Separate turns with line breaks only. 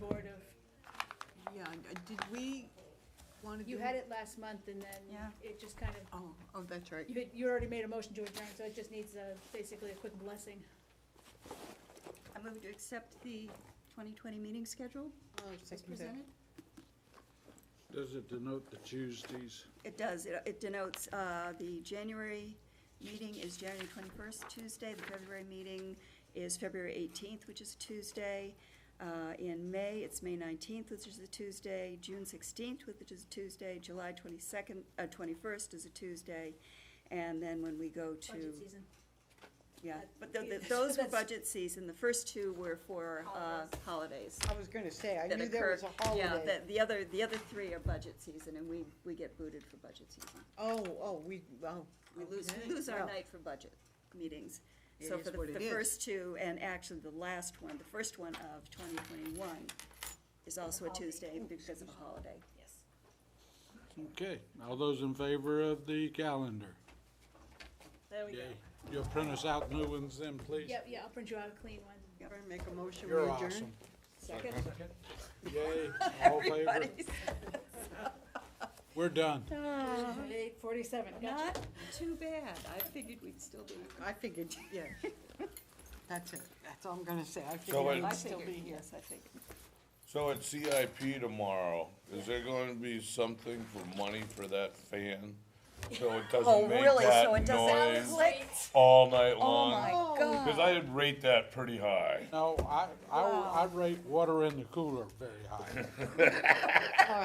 wanna do?
You had it last month and then
Yeah.
it just kind of,
Oh, oh, that's right.
you had, you already made a motion to adjourn, so it just needs a, basically a quick blessing.
I move to accept the 2020 meeting schedule
I'll
as
second that.
presented.
Does it denote the Tuesdays?
It does, it it denotes, uh, the January meeting is January 21st, Tuesday, the February meeting is February 18th, which is Tuesday. Uh, In May, it's May 19th, which is a Tuesday, June 16th, which is a Tuesday, July 22nd, uh, 21st is a Tuesday, and then when we go to.
Budget season.
Yeah,
That-
but th- th-
yeah,
those were
that's-
budget season, the first two were for uh, holidays.
I was gonna say, I
that
knew there was
occur.
a holiday.
Yeah, the, the other, the other three are budget season, and we, we get booted for budget season.
Oh, oh, we, oh.
We lose,
okay.
we lose our
Well,
night for budget meetings.
It
So
is
for the,
what it
the
is.
first two, and actually the last one, the first one of twenty twenty-one is also a Tuesday because of a holiday.
Yes.
Okay, all those in favor of the calendar?
There we
Yay. You'll print us out new ones then, please?
Yeah, yeah, I'll print you out a clean one.
All right, make a motion, we
You're
adjourn.
awesome.
Second.
Yay, all in favor?
Everybody's
We're done.
Uh-huh.
Eight forty-seven, gotcha.
not too bad. I figured we'd still be.
I figured, yeah. That's it, that's all I'm gonna say, I
Go
figured
in.
we'd
I
still be
figured,
here.
yes, I think.
So at CIP tomorrow, is there going to be something for money for that fan? So it
Oh,
doesn't make
really? So it
that
doesn't
noise
click?
all night
Oh,
long?
my
Because
God.
I would rate that pretty high.
No, I, I, I rate water in the cooler very high.